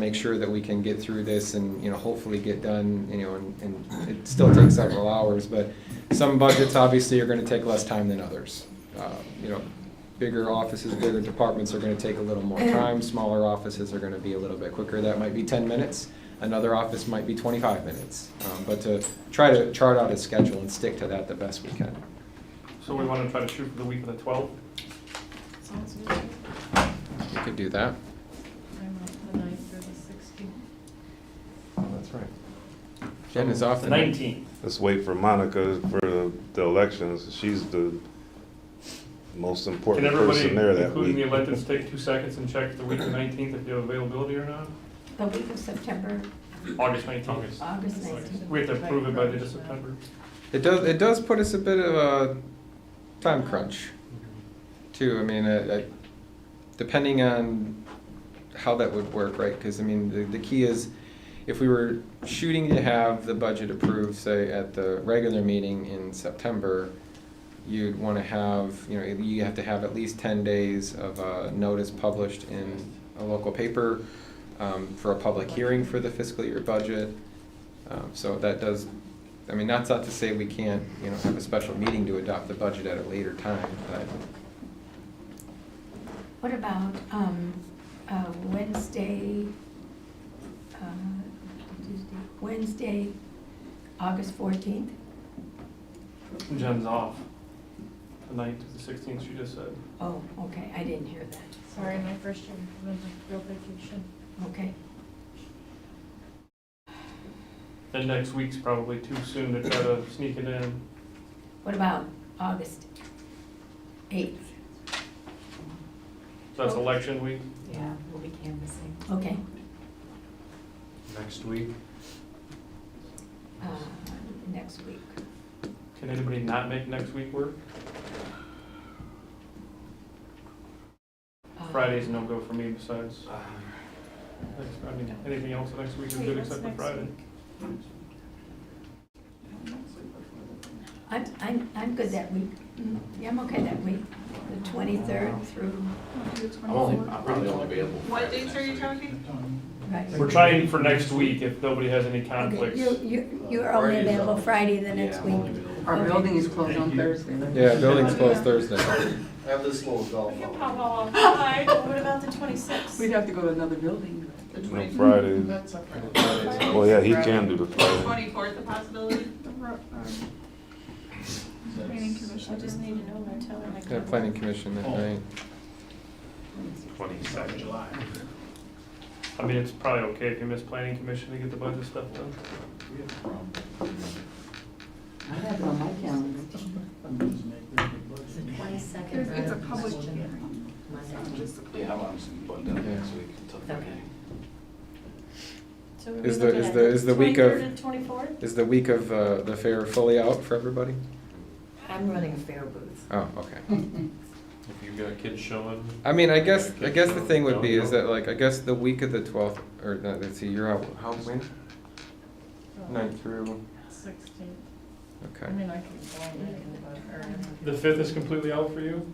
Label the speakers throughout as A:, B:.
A: make sure that we can get through this and, you know, hopefully get done, you know, and, and it still takes several hours, but some budgets obviously are gonna take less time than others. Uh, You know, bigger offices, bigger departments are gonna take a little more time, smaller offices are gonna be a little bit quicker, that might be ten minutes. Another office might be twenty-five minutes, um, but to try to chart out a schedule and stick to that the best we can.
B: So we want to try to shoot for the week of the 12th?
C: Sounds good. I'm
A: We could do that.
C: out the ninth or the sixteenth.
A: That's right. Jen is off
B: The
A: the
B: 19th.
D: Let's wait for Monica for the elections. She's the most
B: Can
D: important
B: everybody,
D: person there that
B: including the
D: week.
B: electeds, take two seconds and check the week of the 19th if you have availability or not?
E: The week of September,
B: August 19th.
E: August 19th.
B: We have to approve it by the end of September.
A: It does, it does put us a bit of a time crunch too. I mean, uh, uh, depending on how that would work, right? Because I mean, the, the key is if we were shooting to have the budget approved, say at the regular meeting in September, you'd want to have, you know, you have to have at least ten days of uh notice published in a local paper um, for a public hearing for the fiscal year budget. Um, so that does, I mean, that's not to say we can't, you know, have a special meeting to adopt the budget at a later time, but
E: What about um, uh, Wednesday, uh, Tuesday, Wednesday, August 14th?
B: Jen's off the 9th to the 16th, she just said.
E: Oh, okay, I didn't hear that.
C: Sorry, my first year was a real vacation.
E: Okay,
B: And next week's probably too soon to try to sneak it in.
E: what about August 8th?
B: So that's election week.
F: Yeah, we'll be canvassing.
E: Okay.
G: Next week,
E: uh, Next week.
B: Can anybody not make next week work?
C: Oh.
E: Uh,
B: Friday's no go for me besides,
G: uh,
B: next- I mean, anything else next week is
C: Wait,
B: good
C: what's
B: except for
C: next
B: Friday.
E: I'm, I'm, I'm good that week. Mm, Yeah, I'm okay that week, the 23rd through,
G: I'm only, I'm probably only available.
H: What
G: Friday
H: dates are
G: next
H: you
G: week.
H: talking?
E: right.
B: We're trying for next week if nobody has any
E: Okay,
B: conflicts.
E: you- you, you're only
G: Friday's
E: available
G: up.
E: Friday the next
G: Yeah, I'm
E: week.
G: only available.
E: Our
H: Our
E: building
H: building is closed on Thursday.
A: yeah, building's closed Thursday.
G: I have this little
C: We
G: golf.
C: can
G: ball.
C: pop all outside, but what about the twenty-sixth?
H: We'd have to go to another building.
D: No Fridays. Well, yeah, he can do the Friday.
H: Twenty-fourth, a possibility?
C: Planning commission, I just need to know by telling my.
A: Yeah, planning commission that night.
G: Twenty-second July.
B: I mean, it's probably okay if you miss planning commission to get the budget stuff done.
H: I have it on my calendar.
F: Twenty-second.
H: It's a public
F: hearing.
G: Yeah, I'm, I'm just buttoned up next week until Friday.
C: So we're
A: Is
C: gonna
A: the-
C: look
A: is
C: at
A: the- is the week of-
C: 23rd and twenty-fourth?
A: Is the week of uh, the fair fully out for everybody?
F: I'm running a fair booth.
A: Oh, okay.
I: If you've got kids showing.
A: I mean, I guess, I guess the thing would be is that like, I guess the week of the twelfth, or no, let's see, you're out, how, when? Ninth through,
C: Sixteenth.
A: okay.
C: I can go on that,
B: The fifth is completely out for you?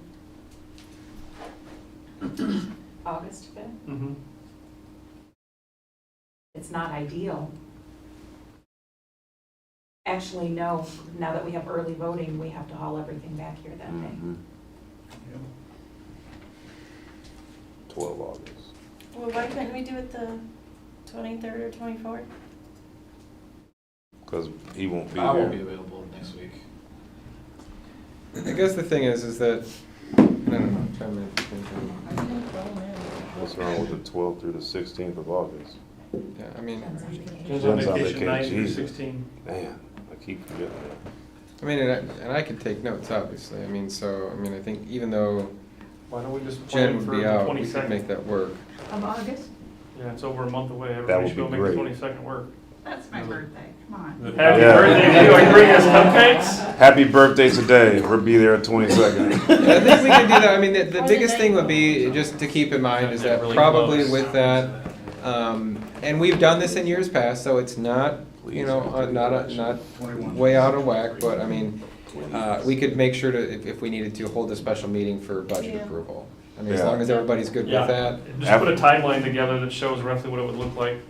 F: August fifth?
B: Mm-hmm.
F: It's not ideal. Actually, no, now that we have early voting, we have to haul everything back here that day.
D: Mm-hmm. Twelve August.
C: or- Well, why couldn't we do it the twenty-third or twenty-fourth?
D: Cause he won't be
G: I won't be
D: here.
G: available next week.
A: I guess the thing is, is that, I don't know, I'm trying to think of-
D: What's wrong with the twelfth through the sixteenth of August?
A: yeah, I mean,
F: Depends on vacation.
B: Jen's on
D: Jen's on
B: vacation
D: vacation,
B: nine through
D: Jesus.
B: sixteen.
D: Man, I keep forgetting that.
A: I mean, and I, and I could take notes, obviously, I mean, so, I mean, I think even though
B: Why don't we just
A: Jen
B: plan
A: would
B: for
A: be
B: the
A: out, we could make
B: twenty-second?
A: that work.
E: Of August?
B: Yeah, it's over a month away, everybody
D: would
B: should
D: be
B: go make the
D: great.
B: twenty-second work.
H: That's my birthday, come on.
B: Happy
D: Yeah.
B: birthday, to you, I bring us cupcakes?
D: Happy birthday today. We'll be there at twenty-second.
A: I think we could do that, I mean, the, the
C: Or the
A: biggest thing
C: night.
A: would be, just to keep in mind, is that
I: Really
A: probably
I: close.
A: with that, um, and we've done this in years past, so it's not, you know, uh, not, a- not way out of whack, but I mean, uh, we could make sure to, if, if we needed to, hold a special meeting for budget
C: Yeah.
A: approval. I mean, as
D: Yeah.
A: long as everybody's good with
B: Yeah.
A: that.
B: Just put a timeline together that shows roughly what it would look like